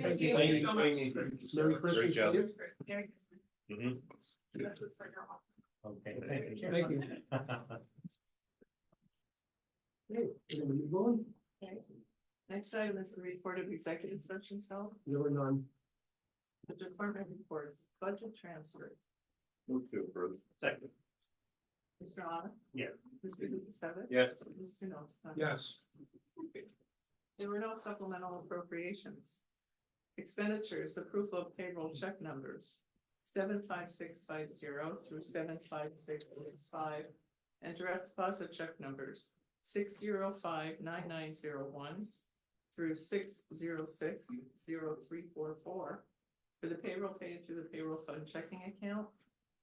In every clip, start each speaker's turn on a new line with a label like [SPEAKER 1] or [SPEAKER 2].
[SPEAKER 1] Thank
[SPEAKER 2] you.
[SPEAKER 3] Thank you so much.
[SPEAKER 1] Merry Christmas.
[SPEAKER 3] job.
[SPEAKER 1] to you.
[SPEAKER 3] Merry Christmas.
[SPEAKER 4] Mhm.
[SPEAKER 3] That's what's for now.
[SPEAKER 4] Okay.
[SPEAKER 1] Thank you. Thank you. Hey, you know, you going?
[SPEAKER 3] Next item is the report of executive sessions held,
[SPEAKER 1] You're none.
[SPEAKER 3] the department reports, budget transfer.
[SPEAKER 4] Move to approve. Second.
[SPEAKER 3] Mr. Honor?
[SPEAKER 4] Yeah.
[SPEAKER 3] Mr. Lukasevich?
[SPEAKER 4] Yes.
[SPEAKER 3] Mr. Nostine?
[SPEAKER 1] Yes.
[SPEAKER 3] There were no supplemental appropriations. Expenditures, approval of payroll check numbers, seven five six five zero through seven five six six five. And direct deposit check numbers, six zero five nine nine zero one through six zero six zero three four four. For the payroll paid through the payroll fund checking account.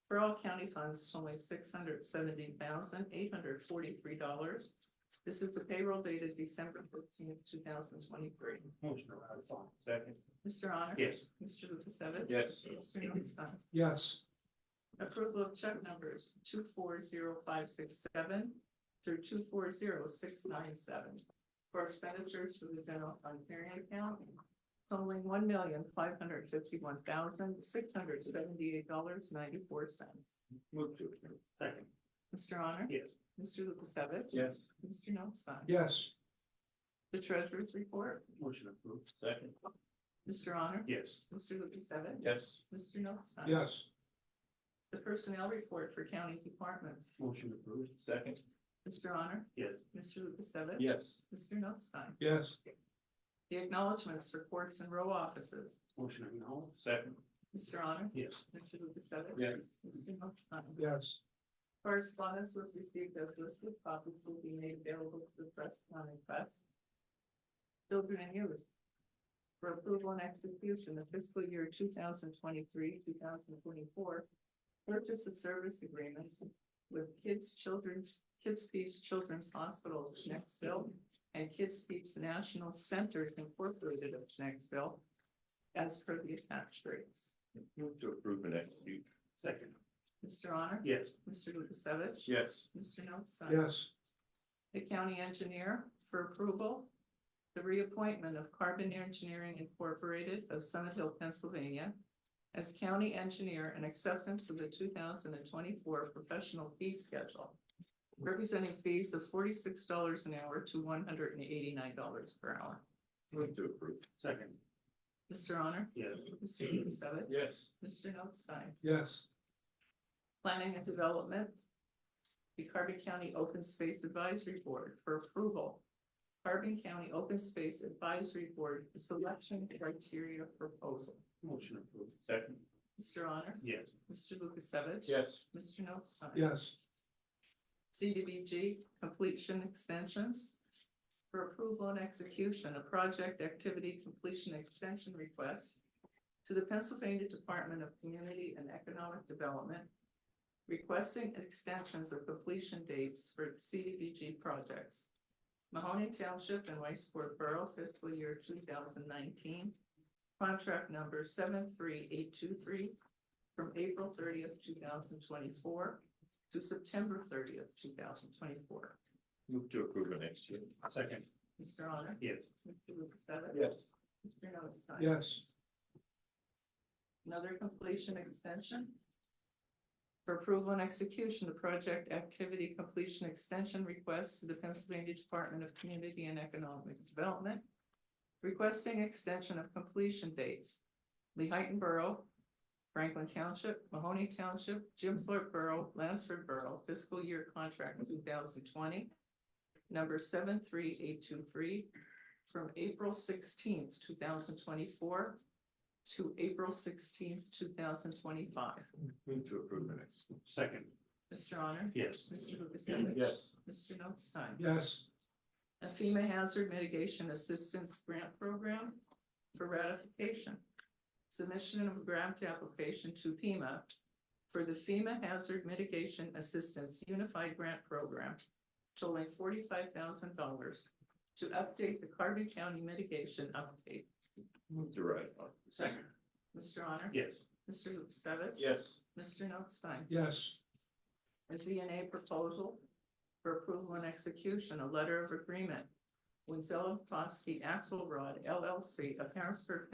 [SPEAKER 3] For all county funds totaling six hundred seventy thousand eight hundred forty-three dollars. This is the payroll dated December fifteenth, two thousand twenty-three.
[SPEAKER 4] Motion to ratify. Second.
[SPEAKER 3] Mr. Honor?
[SPEAKER 4] Yes.
[SPEAKER 3] Mr. Lukasevich?
[SPEAKER 4] Yes.
[SPEAKER 3] Mr. Nostine?
[SPEAKER 1] Yes.
[SPEAKER 3] Approval of check numbers two four zero five six seven through two four zero six nine seven for expenditures to the general fund carrying account totaling one million five hundred fifty-one thousand six hundred seventy-eight dollars ninety-four cents.
[SPEAKER 4] Move to approve. Second.
[SPEAKER 3] Mr. Honor?
[SPEAKER 4] Yes.
[SPEAKER 3] Mr. Lukasevich?
[SPEAKER 4] Yes.
[SPEAKER 3] Mr. Nostine?
[SPEAKER 1] Yes.
[SPEAKER 3] The treasurer's report,
[SPEAKER 4] Motion approved. Second.
[SPEAKER 3] Mr. Honor?
[SPEAKER 4] Yes.
[SPEAKER 3] Mr. Lukasevich?
[SPEAKER 4] Yes.
[SPEAKER 3] Mr. Nostine?
[SPEAKER 1] Yes.
[SPEAKER 3] The personnel report for county departments,
[SPEAKER 4] Motion approved. Second.
[SPEAKER 3] Mr. Honor?
[SPEAKER 4] Yes.
[SPEAKER 3] Mr. Lukasevich?
[SPEAKER 4] Yes.
[SPEAKER 3] Mr. Notstein.
[SPEAKER 1] Yes.
[SPEAKER 3] The acknowledgements for courts and row offices.
[SPEAKER 4] Motion approved. Second.
[SPEAKER 3] Mr. Honor?
[SPEAKER 4] Yes.
[SPEAKER 3] Mr. Lukasevich?
[SPEAKER 4] Yes.
[SPEAKER 3] Mr. Notstein.
[SPEAKER 1] Yes.
[SPEAKER 3] Correspondence was received as listed. Copies will be made available to the press upon request. Children and youth. For approval and execution of fiscal year two thousand twenty-three, two thousand twenty-four. Purchase of service agreements with Kids Children's, Kids Peace Children's Hospital of Knoxville and Kids Peace National Centers Incorporated of Knoxville as per the attached rates.
[SPEAKER 4] Move to approve and execute. Second.
[SPEAKER 3] Mr. Honor?
[SPEAKER 4] Yes.
[SPEAKER 3] Mr. Lukasevich?
[SPEAKER 4] Yes.
[SPEAKER 3] Mr. Notstein?
[SPEAKER 1] Yes.
[SPEAKER 3] the county engineer for approval. The reappointment of Carbon Engineering Incorporated of Summit Hill, Pennsylvania as county engineer and acceptance of the two thousand and twenty-four professional fee schedule. Representing fees of forty-six dollars an hour to one hundred and eighty-nine dollars per hour.
[SPEAKER 4] Move to approve. Second.
[SPEAKER 3] Mr. Honor?
[SPEAKER 4] Yes.
[SPEAKER 3] Mr. Lukasevich?
[SPEAKER 4] Yes.
[SPEAKER 3] Mr. Notstein?
[SPEAKER 1] Yes.
[SPEAKER 3] Planning and Development. The Carbon County Open Space Advisory Board for approval. Carbon County Open Space Advisory Board Selection Criteria Proposal.
[SPEAKER 4] Motion approved. Second.
[SPEAKER 3] Mr. Honor?
[SPEAKER 4] Yes.
[SPEAKER 3] Mr. Lukasevich?
[SPEAKER 4] Yes.
[SPEAKER 3] Mr. Notstein?
[SPEAKER 1] Yes.
[SPEAKER 3] CDBG completion extensions. For approval and execution, a project activity completion extension request to the Pennsylvania Department of Community and Economic Development. Requesting extensions of completion dates for CDBG projects. Mahoning Township and Westport Borough fiscal year two thousand nineteen. Contract number seven three eight two three from April thirtieth, two thousand twenty-four to September thirtieth, two thousand twenty-four.
[SPEAKER 4] Move to approve and execute. Second.
[SPEAKER 3] Mr. Honor?
[SPEAKER 4] Yes.
[SPEAKER 3] Mr. Lukasevich?
[SPEAKER 4] Yes.
[SPEAKER 3] Mr. Notstein?
[SPEAKER 1] Yes.
[SPEAKER 3] Another completion extension. For approval and execution, the project activity completion extension request to the Pennsylvania Department of Community and Economic Development. Requesting extension of completion dates. Lehighton Borough, Franklin Township, Mahoney Township, Jim Thorpe Borough, Lansford Borough, fiscal year contract two thousand twenty. Number seven three eight two three from April sixteenth, two thousand twenty-four to April sixteenth, two thousand twenty-five.
[SPEAKER 4] Move to approve and execute. Second.
[SPEAKER 3] Mr. Honor?
[SPEAKER 4] Yes.
[SPEAKER 3] Mr. Lukasevich?
[SPEAKER 4] Yes.
[SPEAKER 3] Mr. Notstein?
[SPEAKER 1] Yes.
[SPEAKER 3] A FEMA Hazard Mitigation Assistance Grant Program for ratification. Submission of grant application to FEMA for the FEMA Hazard Mitigation Assistance Unified Grant Program totaling forty-five thousand dollars to update the Carbon County mitigation update.
[SPEAKER 4] Move to ratify. Second.
[SPEAKER 3] Mr. Honor?
[SPEAKER 4] Yes.
[SPEAKER 3] Mr. Lukasevich?
[SPEAKER 4] Yes.
[SPEAKER 3] Mr. Notstein?
[SPEAKER 1] Yes.
[SPEAKER 3] a ZNA proposal for approval and execution, a letter of agreement. Winzello Foskey Axelrod LLC of Harrisburg,